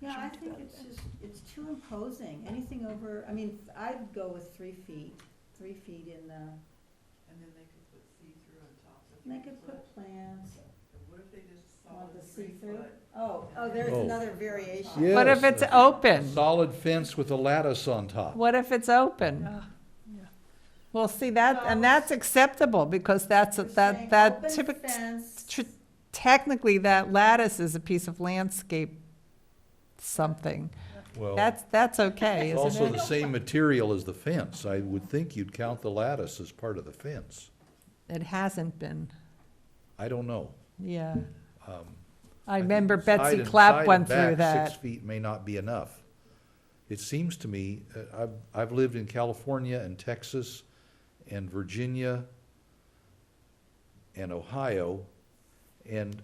Yeah, I Trying to think go it's there. just, it's too imposing, anything over, I mean, I'd go with three feet, three feet in the, And then they could put see-through on top of three and I could foot. put plants And What if they just on solid the three see-through. foot? Oh, oh, there's Oh. another variation. Yeah. What if Yes. it's open? Solid fence with a lattice on top. What if it's open? Well, see, that, and that's acceptable, because that's, We're saying that, that open typically, fence, tr- technically, that lattice is a piece of landscape something. Well, That's, that's okay, it's also isn't the it? same material as the fence. I would think you'd count the lattice as part of the fence. It hasn't been, I don't know. yeah. Um, I think remember side Betsy and- side Clapp went and through back, Six that. feet may not be enough. It seems to me, uh, I've, I've lived in California and Texas and Virginia and Ohio, and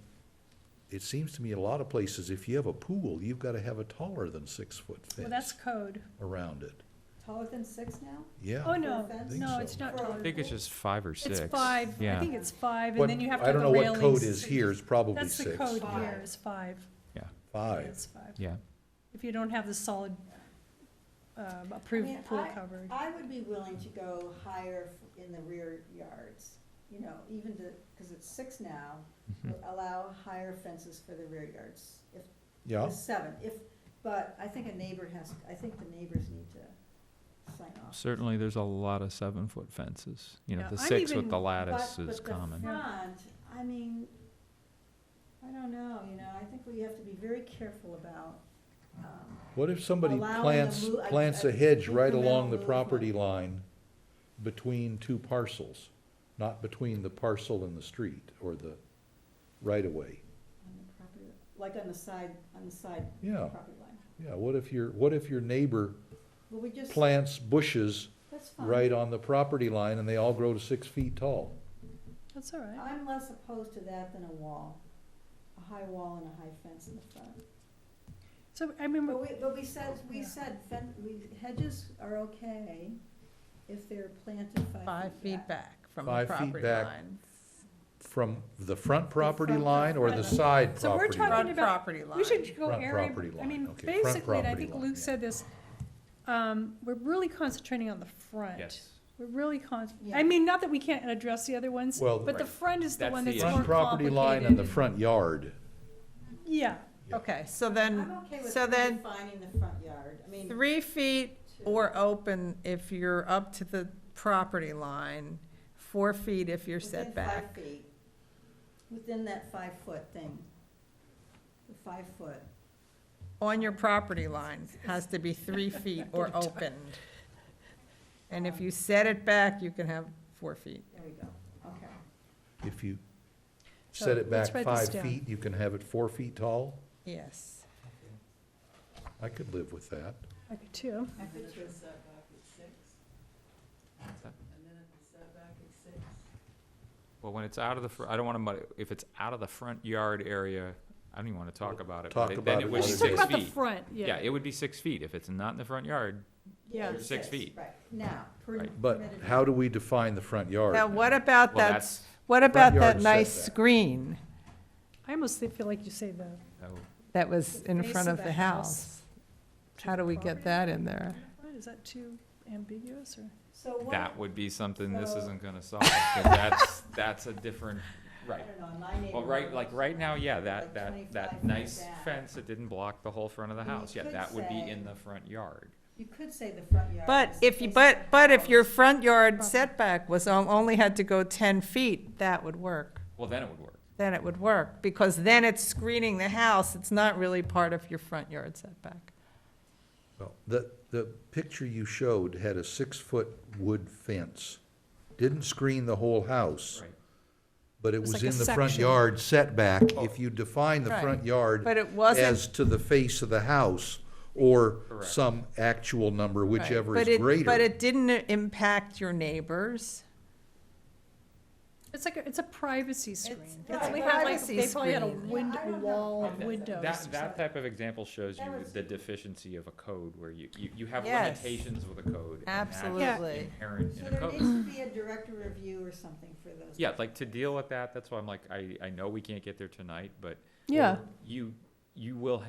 it seems to me a lot of places, if you have a pool, you've gotta have a taller than six-foot Well, that's fence code. around it. taller than six now? Oh, Yeah, no, Think no, so. it's not For a code. I think it's just five or six. It's five. I Yeah. think it's five, What- and then you have to I have don't the know railings. what code is here, it's probably That's the six. code Five. here, is five. Five, It's five. Yeah. If you don't have the solid, um, approved I mean, pool coverage. I would be willing to go higher f- in the rear yards, you know, even to, because it's six now, Hmm. Mm-hmm. Mhm. allow higher fences for the rear yards, if yeah, It's Seven, if, but I think a neighbor has, I think the neighbors need to sign off. Certainly, there's a lot of seven-foot fences. You know, Yeah, the I'm six with the even- lattice But- is common. But the front, I mean, I don't know, you know, I think we have to be very careful about, um, What if somebody Allowing a plants, mo- a- plants a a hedge right along the incremental property movement. line between two parcels? Not between the parcel and the street or the right-of-way? on the property, like on the side, on the side Yeah. property line. Yeah, what if your, what if your neighbor Well, we just, plants bushes that's fine. right on the property line and they all grow to six feet tall? That's all right. I'm less opposed to that than a wall, a high wall and a high fence in the front. So I remember, But we, but we said, we Yeah. said, fen- we, hedges are okay if they're planted Five feet back from the Five feet property back. line. From the front property front line or the property. side So we're property talking line? Front about- property line. we should go Front area, property I line, mean, okay, front basically, and I property think line, Luke yeah. said this, um, we're really concentrating on the front. We're really con, Yeah. I mean, not that we can't address the other ones, Well, but the Right. front is the That's one the that's issue. more Front property line and the complicated. front yard. Yeah, Okay, so then, I'm okay with so then, defining the front yard, I mean. three feet to- Or open if you're up to the property line, four feet if you're within set back. five feet, Within that five-foot thing, the five-foot. On your property line has to be three feet or opened. And if you set it back, you can have four feet. There we go, okay. If you So, set it let's back write this five down. feet, you can have it four feet tall? Yes. I could live with that. I could too. I And then could if too. the setback is six. that? And then if the setback is six. Well, when it's out of the, fr- I don't want to, if it's out of the front yard area, I don't even want to talk about it. but Talk it- about Then it it Well, would Let's be just it's talk six about the feet. front, Yeah, yeah. it would be six feet. If it's not in the front yard, Yeah. it's Six feet. Right, now. per- Right. But permitted. how do we define the front yard? Now, what about well, that, that's, what about yard that is nice setback. screen I almost feel like you say the, oh, that was The in face front of of the the house house? to How the do we property get that in there? what, is that too ambiguous, or? So what, I that would be something this So- isn't going to solve, 'cause that's, that's a different, right. don't know, my neighborhood. Well, right, like, right now, yeah, Like that, that, 25 that feet nice back. fence that didn't block the whole front of the And you house, yeah, could that would be say- in the front yard. You could say the front yard. But is the if face you, of but, the but if your house. front yard Property. setback was, on- only had to go ten feet, that would work. Well, then it would work. then it would work, because then it's screening the house, it's not really part of your front yard setback. Well, The, the picture you showed had a six-foot wood fence. Didn't screen the whole house, but it was was like a in the front section. yard setback. If you define the Right. front yard Oh. But it wasn't, as to the face of the house or Correct. some actual number, right, whichever but is it- But greater. it didn't impact your neighbors. It's like, a- it's a privacy screen. They right, probably had like, privacy they probably had a screen. wind, Yeah, I don't know. wall Right. of windows. or That, that something. type of example shows That you was- the deficiency of a code where you, you, you have Yes. limitations with a code. and that's Absolutely. Inherent So in a there needs code. to be a director review or something for those. Yeah, like to deal with that, that's why I'm like, I, I know we can't get there tonight, but Yeah. you, you will